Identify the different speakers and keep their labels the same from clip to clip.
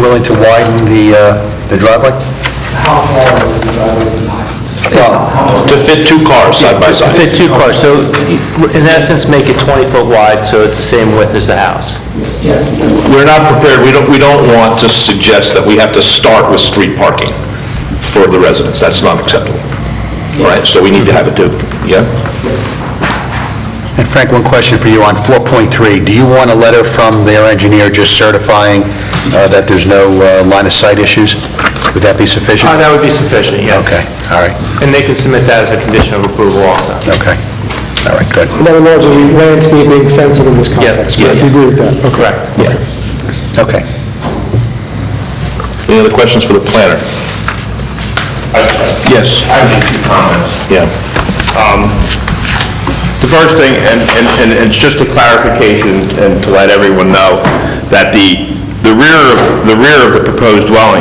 Speaker 1: willing to widen the, uh, the driveway?
Speaker 2: How far is the driveway from mine?
Speaker 1: Well,
Speaker 3: To fit two cars side by side.
Speaker 4: Fit two cars, so in essence, make it 20 foot wide, so it's the same width as the house.
Speaker 2: Yes,
Speaker 3: We're not prepared, we don't, we don't want to suggest that we have to start with street parking for the residents, that's not acceptable. All right, so we need to have it do, yeah?
Speaker 1: and Frank, one question for you on 4.3. Do you want a letter from their engineer just certifying uh, that there's no uh, line of sight issues? Would that be sufficient?
Speaker 4: Uh, That would be sufficient, yes.
Speaker 1: Okay, all right,
Speaker 4: And they can submit that as a condition of approval also.
Speaker 1: okay. All right, good.
Speaker 5: In other words, it'd be landscaping, fencing in this context,
Speaker 4: yeah,
Speaker 5: correct?
Speaker 4: yeah.
Speaker 5: You agree with that? Okay.
Speaker 4: Correct.
Speaker 3: Yeah.
Speaker 1: Okay.
Speaker 3: Any other questions for the planner? Yes.
Speaker 6: I have a few comments. Um,
Speaker 3: Yeah.
Speaker 6: The first thing, and, and, and it's just a clarification and to let everyone know that the, the rear, of- the rear of the proposed dwelling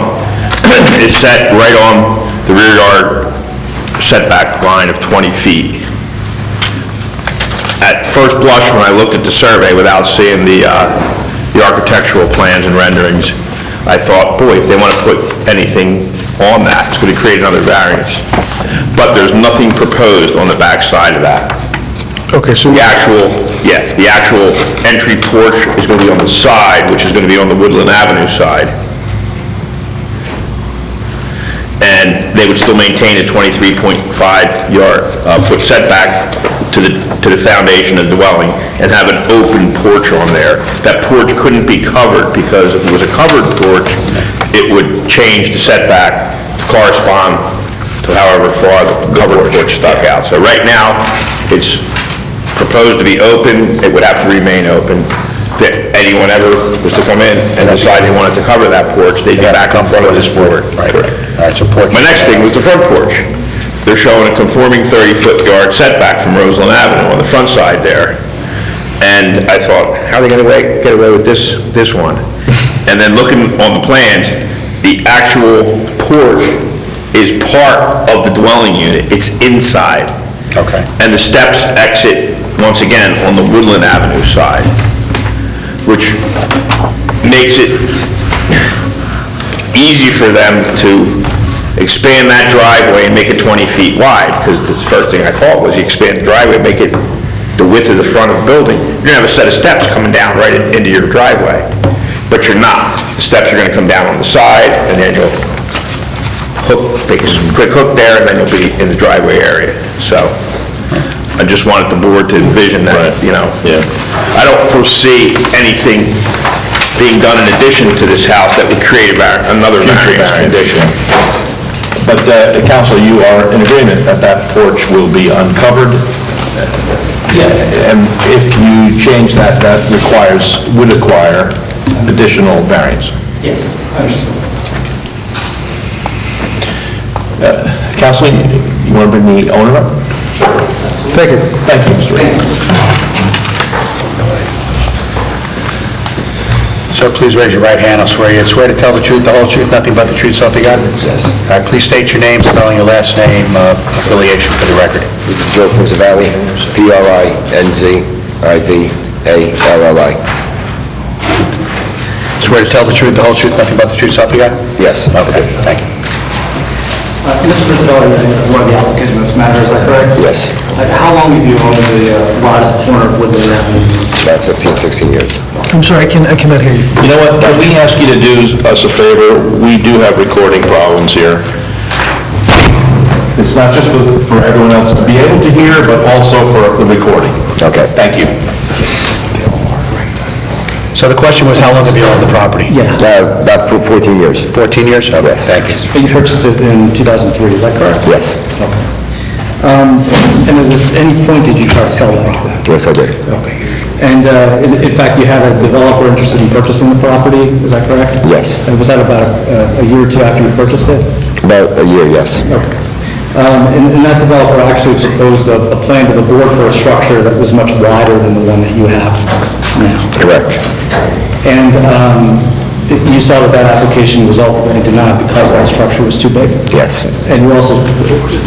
Speaker 6: is set right on the rear yard setback line of 20 feet. At first blush, when I looked at the survey without seeing the, uh, the architectural plans and renderings, I thought, boy, if they want to put anything on that, it's going to create another variance. But there's nothing proposed on the back side of that.
Speaker 5: Okay, so
Speaker 6: The actual, yeah, the actual entry porch is going to be on the side, which is going to be on the Woodland Avenue side. And they would still maintain a 23.5 yard, uh, foot setback to the, to the foundation of the dwelling and have an open porch on there. That porch couldn't be covered because if it was a covered porch, it would change the setback to correspond to however far the covered porch stuck out. So right now, it's proposed to be open, it would have to remain open. If anyone ever was to come in and decide they wanted to cover that porch, they'd be back in front of this board.
Speaker 1: Right, all right, so porch.
Speaker 6: My next thing was the front porch. They're showing a conforming 30-foot yard setback from Roseland Avenue on the front side there. And I thought, how are they gonna wa- get away with this, this one? And then looking on the plans, the actual porch is part of the dwelling unit. It's inside.
Speaker 1: Okay.
Speaker 6: And the steps exit, once again, on the Woodland Avenue side, which makes it easy for them to expand that driveway and make it 20 feet wide, because the first thing I thought was you expand the driveway, make it the width of the front of the building, you're gonna have a set of steps coming down right in- into your driveway, but you're not. The steps are gonna come down on the side, and then you'll hook, take a quick hook there, and then you'll be in the driveway area. So I just wanted the board to envision that, you know?
Speaker 3: yeah.
Speaker 6: I don't foresee anything being done in addition to this house that would create a var- another variance condition.
Speaker 3: But, uh, counsel, you are in agreement that that porch will be uncovered?
Speaker 2: yes,
Speaker 3: And if you change that, that requires, would require additional variance.
Speaker 2: yes, understood.
Speaker 3: Counsel, Uh, you want to bring the owner up? Thank you. Thank you, Mr. Reed.
Speaker 1: Sir, please raise your right hand, I swear you swear to tell the truth, the whole truth, nothing but the truth, so help you God? Yes. All right, please state your name, spelling your last name, uh, affiliation for the record.
Speaker 7: Joe Prinzavalli, P-R-I-N-Z-I-V-A-L-L-I.
Speaker 1: Swear to tell the truth, the whole truth, nothing but the truth, so help you God?
Speaker 7: Yes.
Speaker 1: Okay, thank you.
Speaker 2: Uh, Mr. Prisbilla, one of the applicants in this matter, is that correct?
Speaker 7: Yes.
Speaker 2: Uh, How long have you owned the uh, lot at the corner of Woodland Avenue?
Speaker 7: About 15, 16 years.
Speaker 5: I'm sorry, I can, I cannot hear you.
Speaker 3: You know what, can we ask you to do us a favor? We do have recording problems here. It's not just for, for everyone else to be able to hear, but also for the recording.
Speaker 7: Okay.
Speaker 3: Thank you.
Speaker 1: So the question was, how long have you owned the property?
Speaker 2: Yeah.
Speaker 7: Uh, About four- 14 years.
Speaker 1: 14 years? Okay, thank you.
Speaker 2: You purchased it in 2003, is that correct?
Speaker 7: Yes.
Speaker 2: And at any point did you try to sell that?
Speaker 7: Yes, I did.
Speaker 2: And uh, in in fact, you had a developer interested in purchasing the property, is that correct?
Speaker 7: Yes.
Speaker 2: And was that about uh, a year or two after you purchased it?
Speaker 7: About a year, yes.
Speaker 2: Okay. Um, And and that developer actually proposed a a plan to the board for a structure that was much wider than the one that you have now.
Speaker 7: Correct.
Speaker 2: And um, you saw that that application was ultimately denied because that structure was too big?
Speaker 7: Yes.
Speaker 2: And you also,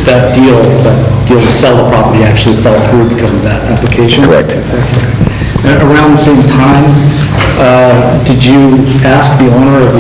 Speaker 2: that deal, that deal to sell the property actually fell through because of that application?
Speaker 7: Correct.
Speaker 2: And Around the same time, uh, did you ask the owner of